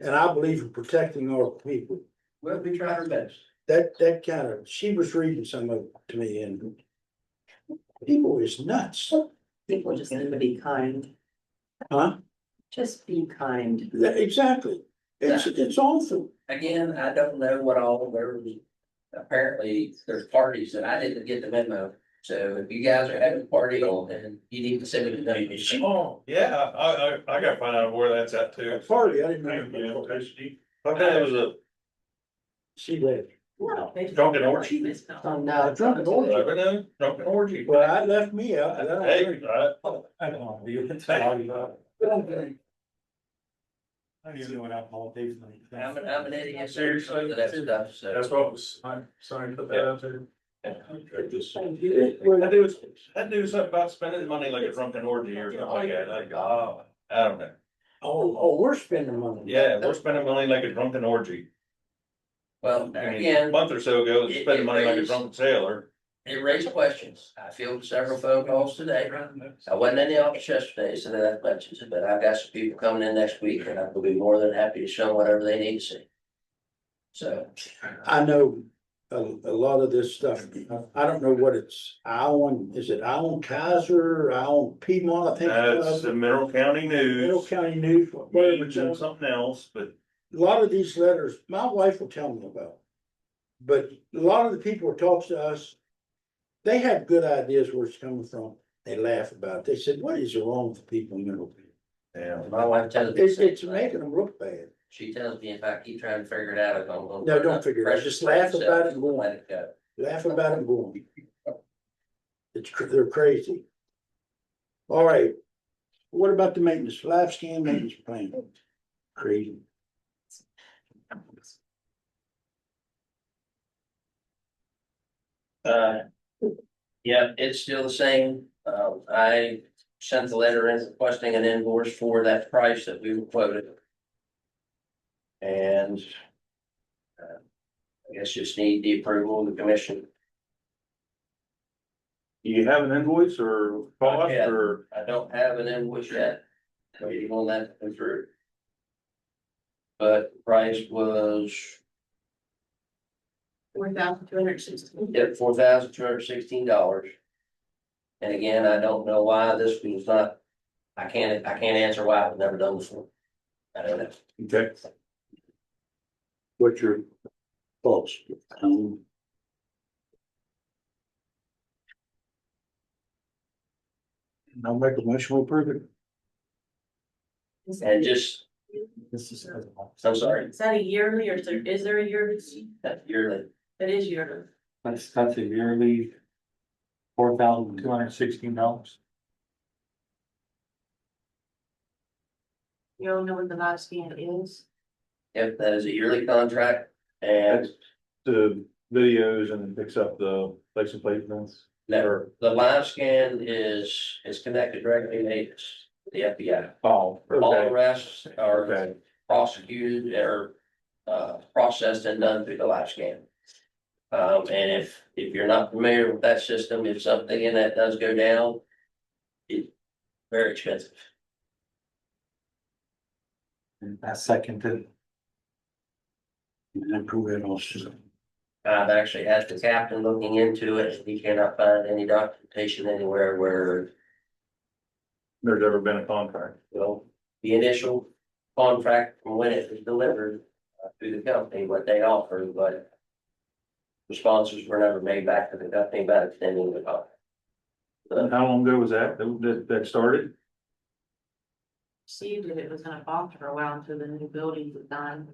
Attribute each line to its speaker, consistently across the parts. Speaker 1: And I believe in protecting our people.
Speaker 2: We'll be trying our best.
Speaker 1: That, that kind of, she was reading some of it to me and people is nuts,
Speaker 3: People just need to be kind,
Speaker 1: huh?
Speaker 3: just be kind.
Speaker 1: Yeah, Exactly. It's, it's awful.
Speaker 2: Again, I don't know what all there was. Apparently, there's parties that I didn't get the memo. So if you guys are having a party on, then you need to send me the memo.
Speaker 4: Oh, yeah, I, I, I gotta find out where that's at too.
Speaker 1: At Farley, I didn't
Speaker 4: Thank you,
Speaker 1: know.
Speaker 4: Christie. I thought it was a,
Speaker 1: She left.
Speaker 3: No. they just-
Speaker 4: Drunken orgy.
Speaker 3: Oh, no.
Speaker 1: Drunken
Speaker 4: I
Speaker 1: orgy.
Speaker 4: don't know, drunken orgy.
Speaker 1: Well, I left me out. I don't
Speaker 4: Hey,
Speaker 1: agree.
Speaker 4: I,
Speaker 5: I don't know, you, I don't even know what alcohol tastes like.
Speaker 2: I'm an, I'm an idiot, seriously, for that stuff, so.
Speaker 4: that's what was, I'm sorry to put that out there. I do, I do something about spending money like a drunken orgy or something like that, like, oh, I don't know.
Speaker 1: Oh, oh, we're spending money.
Speaker 4: Yeah, we're spending money like a drunken orgy.
Speaker 2: Well,
Speaker 4: I mean, a
Speaker 2: again,
Speaker 4: month or so ago, we spending money like a drunken sailor.
Speaker 2: it raised questions. I fielded several phone calls today. I wasn't in the office yesterday, so that mentions it, but I've got some people coming in next week and I will be more than happy to show them whatever they need to see. So.
Speaker 1: I know a, a lot of this stuff, I don't know what it's, Allen, is it Allen Kaiser, Allen Piedmont, I think. it's
Speaker 4: That's
Speaker 1: called?
Speaker 4: the Mineral County
Speaker 1: Middle
Speaker 4: News.
Speaker 1: County News, whatever, it's
Speaker 4: Doing
Speaker 1: called.
Speaker 4: something else, but
Speaker 1: a lot of these letters, my wife will tell me about. But a lot of the people who talk to us, they have good ideas where it's coming from, they laugh about it, they said, what is wrong with people in Middle? Tennessee?"
Speaker 4: yeah.
Speaker 2: My wife tells me.
Speaker 1: It's, it's making them look bad,
Speaker 2: She tells me if I keep trying to figure it out, I'm gonna.
Speaker 1: No, don't figure it out. Just laugh about it and go on.
Speaker 2: Let it go.
Speaker 1: laugh about it and go on. It's, cr- they're crazy. All right, what about the maintenance, live scan maintenance plan? Crazy,
Speaker 2: Uh, yeah, it's still the same. Um, I sent the letter in requesting an invoice for that price that we were quoted. And uh, I guess just need the approval of the commission.
Speaker 4: Do you have an invoice or cost
Speaker 2: Yeah.
Speaker 4: or?
Speaker 2: I don't have an invoice yet. Waiting on that to come through. But price was,
Speaker 3: Four thousand two hundred sixteen.
Speaker 2: yeah, four thousand two hundred sixteen dollars. And again, I don't know why this was not, I can't, I can't answer why it was never done before. I don't know.
Speaker 4: Okay.
Speaker 1: what's your thoughts? Um, I'll make a motion to approve it.
Speaker 2: And just,
Speaker 5: This is.
Speaker 2: I'm sorry,
Speaker 3: Is that a yearly or is there, is there a yearly?
Speaker 2: that yearly,
Speaker 3: That is yearly.
Speaker 5: That's, that's a yearly four thousand two hundred sixteen dollars.
Speaker 3: You don't know what the last scan is?
Speaker 2: yep, that is a yearly contract. And
Speaker 4: The videos and picks up the license plate ones.
Speaker 2: never, the live scan is, is connected directly to APIS, the FBI.
Speaker 4: Oh,
Speaker 2: All arrests are
Speaker 4: Okay,
Speaker 2: prosecuted or, uh, processed and done through the live scan. Um, and if, if you're not familiar with that system, if something in that does go down, it's very expensive.
Speaker 5: And I seconded.
Speaker 1: And approve it also.
Speaker 2: I've actually asked the captain looking into it, and he cannot find any documentation anywhere where
Speaker 4: there's ever been a contract.
Speaker 2: Well, the initial contract from when it was delivered uh, through the company, what they offered, but. Responses were never made back to the company about extending the contract.
Speaker 4: And how long ago was that, that, that started?
Speaker 3: See, that it was gonna bother for a while until the new building was done.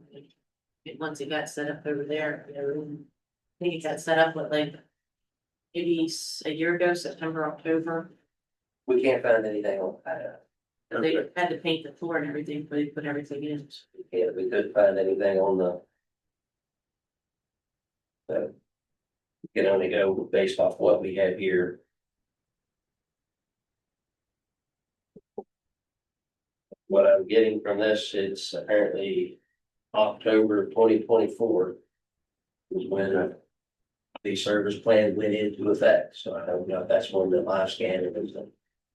Speaker 3: It, once it got set up over there, you know, I think it got set up with like. Maybe s- a year ago, September, October,
Speaker 2: We can't find anything on that.
Speaker 3: but they
Speaker 4: Okay.
Speaker 3: had to paint the floor and everything, but they put everything in.
Speaker 2: We can't, we couldn't find anything on the. So. we Can only go based off what we have here. What I'm getting from this, it's apparently October twenty twenty-four. Is when. The service plan went into effect, so I don't know if that's when the live scanner was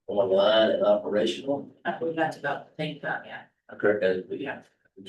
Speaker 2: online and operational.
Speaker 3: I think that's about, think about, yeah.
Speaker 4: Okay.
Speaker 2: Because we
Speaker 3: Yeah.